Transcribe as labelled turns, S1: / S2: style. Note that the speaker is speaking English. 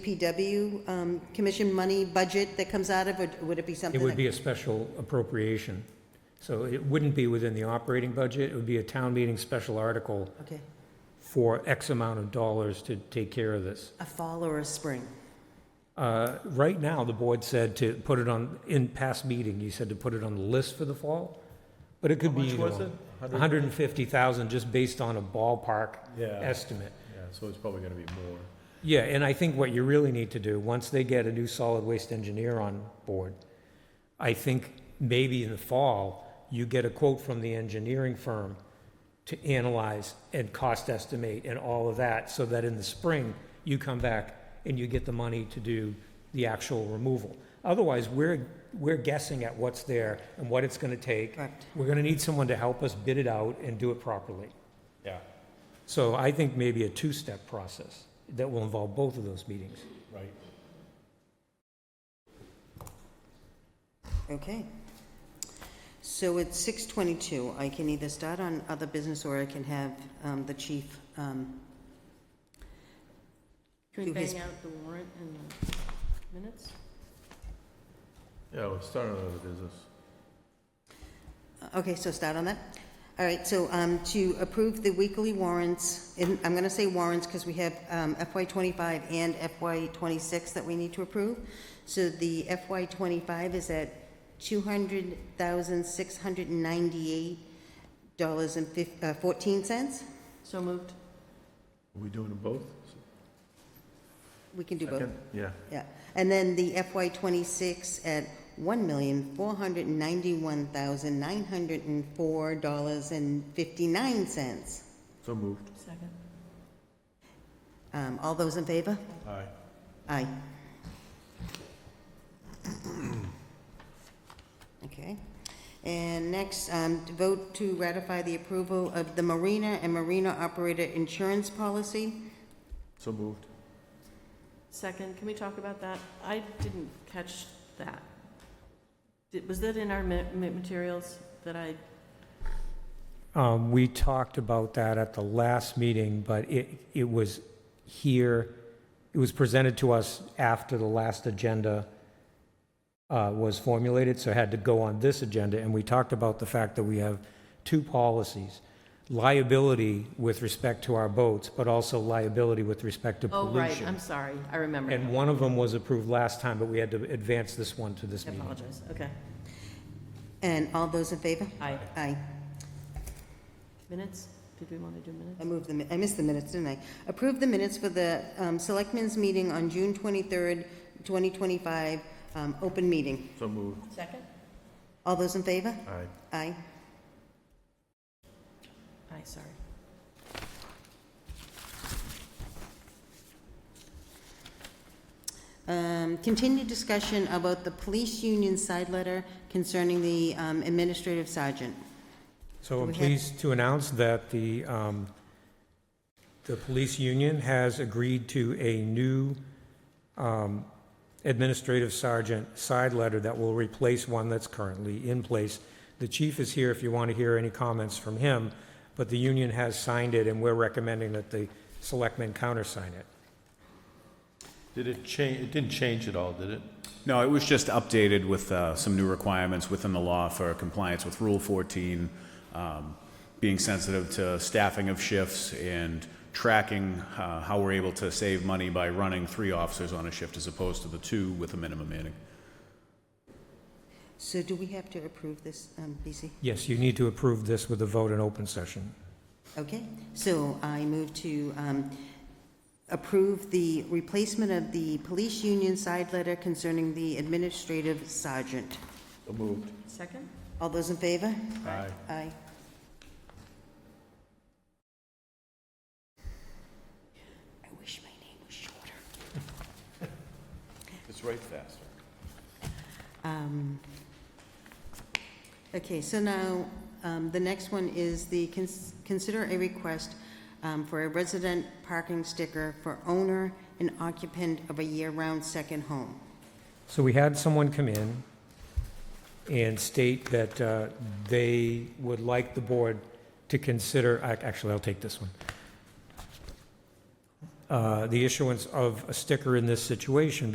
S1: PW um, commission money budget that comes out of, or would it be
S2: It
S1: something?
S2: would
S1: that-
S2: be a special appropriation. So it wouldn't be within the operating budget, it would be a town meeting special article
S1: Okay,
S2: for X amount of dollars to take care of this.
S1: a fall or a spring?
S2: Uh, Right now, the board said to put it on, in past meeting, you said to put it on the list for the fall, but it could
S3: How
S2: be
S3: much
S2: either
S3: was it?
S2: one. 150,000, just based on a ballpark
S3: Yeah,
S2: estimate.
S3: yeah, so it's probably gonna be more.
S2: Yeah, and I think what you really need to do, once they get a new solid waste engineer on board, I think maybe in the fall, you get a quote from the engineering firm to analyze and cost estimate and all of that, so that in the spring, you come back and you get the money to do the actual removal. Otherwise, we're, we're guessing at what's there and what it's gonna take.
S1: Correct.
S2: We're gonna need someone to help us bid it out and do it properly.
S3: Yeah.
S2: So I think maybe a two-step process that will involve both of those meetings.
S3: Right.
S1: Okay. So it's 6:22. I can either start on other business or I can have um, the chief. um,
S4: Can
S1: Do
S4: we
S1: his-
S4: bang out the warrant in the minutes?
S3: Yeah, we're starting another business.
S1: Okay, so start on that. All right, so um, to approve the weekly warrants, and I'm going to say warrants because we have um, FY25 and FY26 that we need to approve. So the FY25 is at uh, $200,698.14.
S4: So moved.
S3: Are we doing them both?
S1: We can do both.
S3: Second? Yeah.
S1: Yeah, and then the FY twenty-six at one million, four hundred and ninety-one thousand, nine hundred and four dollars and fifty-nine cents.
S3: So moved.
S4: Second.
S1: Um, all those in favor?
S3: Aye.
S1: Aye. Okay. And next, um, to vote to ratify the approval of the Marina and Marina Operator Insurance Policy.
S3: So moved.
S4: Second, can we talk about that? I didn't catch that. Did- Was that in our ma- ma- materials that I,
S2: Um, We talked about that at the last meeting, but it, it was here, it was presented to us after the last agenda uh, was formulated, so it had to go on this agenda, and we talked about the fact that we have two policies, liability with respect to our boats, but also liability with respect to
S4: oh,
S2: pollution.
S4: right, I'm sorry, I remember.
S2: And one of them was approved last time, but we had to advance this one to this
S4: I
S2: meeting.
S4: apologize, okay.
S1: And all those in favor?
S4: Aye.
S1: Aye.
S4: Minutes? Did we want to do minutes?
S1: I moved the, mi- I missed the minutes, didn't I? Approve the minutes for the um, Selectmen's meeting on June 23rd, 2025, um, open meeting.
S3: So moved.
S4: Second?
S1: All those in favor?
S3: Aye.
S1: Aye.
S4: Aye, sorry.
S1: Um, Continued discussion about the police union side letter concerning the um, administrative sergeant.
S2: So I'm
S1: We had-
S2: pleased to announce that the, um, the police union has agreed to a new um, administrative sergeant side letter that will replace one that's currently in place. The chief is here if you want to hear any comments from him, but the union has signed it, and we're recommending that the selectmen countersign it.
S3: Did it change, it didn't change at all, did it?
S5: No, it was just updated with uh, some new requirements within the law for compliance with Rule 14, um, being sensitive to staffing of shifts and tracking uh, how we're able to save money by running three officers on a shift as opposed to the two with a minimum manning.
S1: So do we have to approve this, um, BC?
S2: Yes, you need to approve this with a vote in open session.
S1: Okay, so I move to um, approve the replacement of the police union side letter concerning the administrative sergeant.
S3: So moved.
S4: Second?
S1: All those in favor?
S3: Aye.
S1: Aye. I wish my name was shorter.
S3: It's right faster.
S1: Um, Okay, so now, um, the next one is the, cons- consider a request um, for a resident parking sticker for owner and occupant of a year-round second home.
S2: So we had someone come in and state that uh, they would like the board to consider, ac- actually, I'll take this one. uh, the issuance of a sticker in this situation